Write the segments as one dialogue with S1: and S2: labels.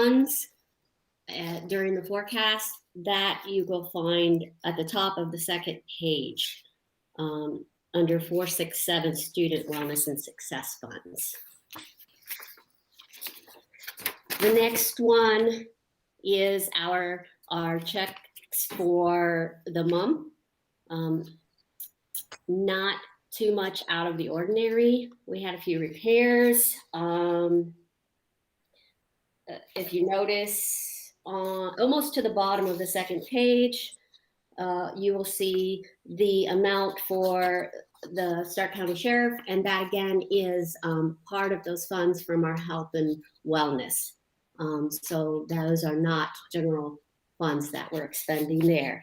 S1: funds uh, during the forecast, that you will find at the top of the second page um, under 467 Student Wellness and Success Funds. The next one is our, our checks for the mum. Um, Not too much out of the ordinary. We had a few repairs. Um, uh, if you notice, uh, almost to the bottom of the second page, uh, you will see the amount for the Stark County Sheriff, and that again is um, part of those funds from our health and wellness. Um, so those are not general funds that we're expending there.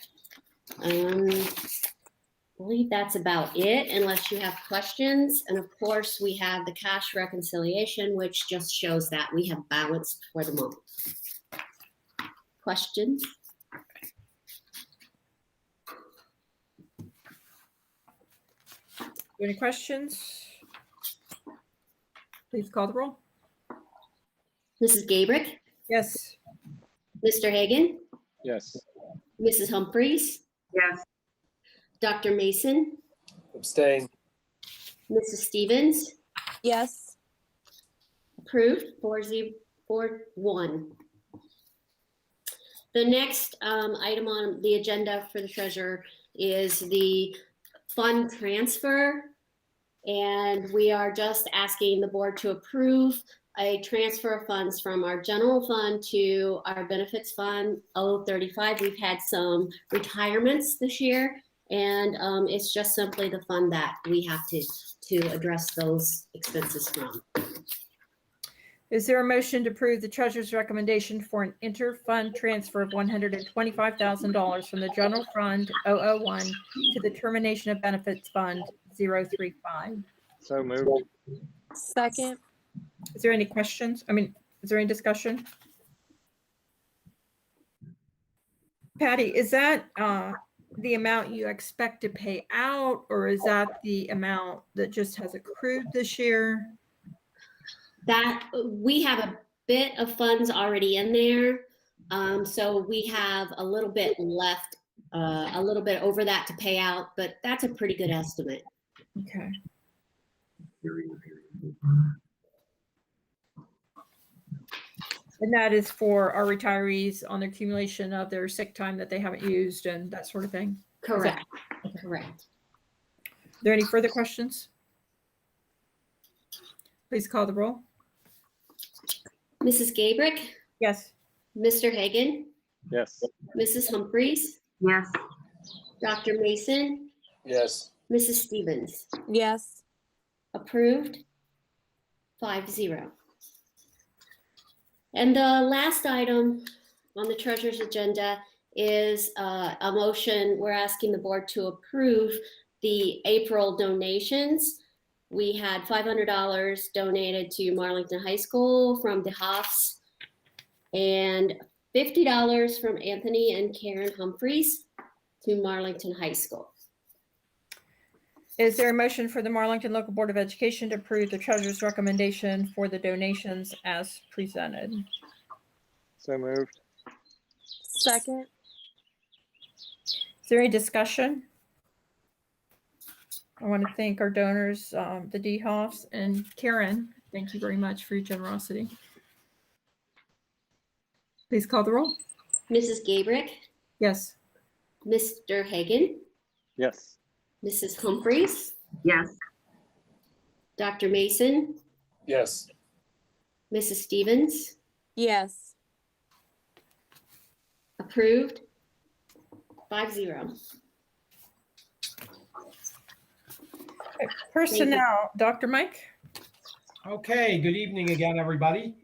S1: Um, I believe that's about it, unless you have questions. And of course, we have the cash reconciliation, which just shows that we have balanced for the month. Questions?
S2: Any questions? Please call the roll.
S1: Mrs. Gabrick,
S2: Yes.
S1: Mr. Hagan,
S3: Yes.
S1: Mrs. Humphries,
S4: Yes,
S1: Dr. Mason,
S3: Abstain.
S1: Mrs. Stevens,
S5: Yes,
S1: Approved, four ze- four one. The next um, item on the agenda for the treasurer is the fund transfer. And we are just asking the board to approve a transfer of funds from our general fund to our benefits fund, 035. We've had some retirements this year, and um, it's just simply the fund that we have to, to address those expenses from.
S2: Is there a motion to approve the treasurer's recommendation for an inter-fund transfer of $125,000 from the general fund 001 to the termination of benefits fund 035?
S3: So moved.
S5: second,
S2: Is there any questions? I mean, is there any discussion? Patty, is that uh, the amount you expect to pay out, or is that the amount that just has accrued this year?
S1: That, we have a bit of funds already in there. Um, so we have a little bit left, uh, a little bit over that to pay out, but that's a pretty good estimate.
S2: Okay. And that is for our retirees on the accumulation of their sick time that they haven't used and that sort of thing.
S1: Correct, correct.
S2: Are there any further questions? Please call the roll.
S1: Mrs. Gabrick,
S2: Yes.
S1: Mr. Hagan,
S3: Yes.
S1: Mrs. Humphries,
S4: yes,
S1: Dr. Mason,
S3: Yes.
S1: Mrs. Stevens.
S5: yes,
S1: Approved. Five zero. And the last item on the treasurer's agenda is uh, a motion, we're asking the board to approve the April donations. We had $500 donated to Marlington High School from DeHaas and $50 from Anthony and Karen Humphreys to Marlington High School.
S2: Is there a motion for the Marlington Local Board of Education to approve the treasurer's recommendation for the donations as presented?
S3: So moved.
S5: second,
S2: Is there any discussion? I want to thank our donors, um, the DeHoffs and Karen. Thank you very much for your generosity. Please call the roll.
S1: Mrs. Gabrick,
S2: Yes.
S1: Mr. Hagan,
S3: Yes.
S1: Mrs. Humphries,
S4: yes,
S1: Dr. Mason,
S3: Yes.
S1: Mrs. Stevens,
S5: yes,
S1: approved. Five zero.
S2: Personnel, Dr. Mike?
S6: Okay, good evening again, everybody.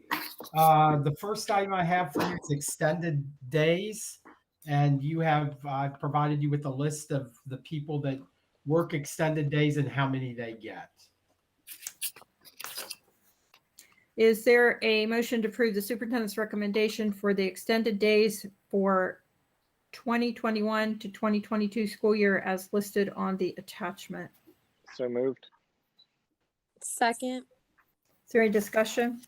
S6: Uh, The first item I have for you is extended days. And you have, I've provided you with a list of the people that work extended days and how many they get.
S2: Is there a motion to approve the superintendent's recommendation for the extended days for 2021 to 2022 school year as listed on the attachment?
S3: So moved.
S5: second,
S2: Is there any discussion?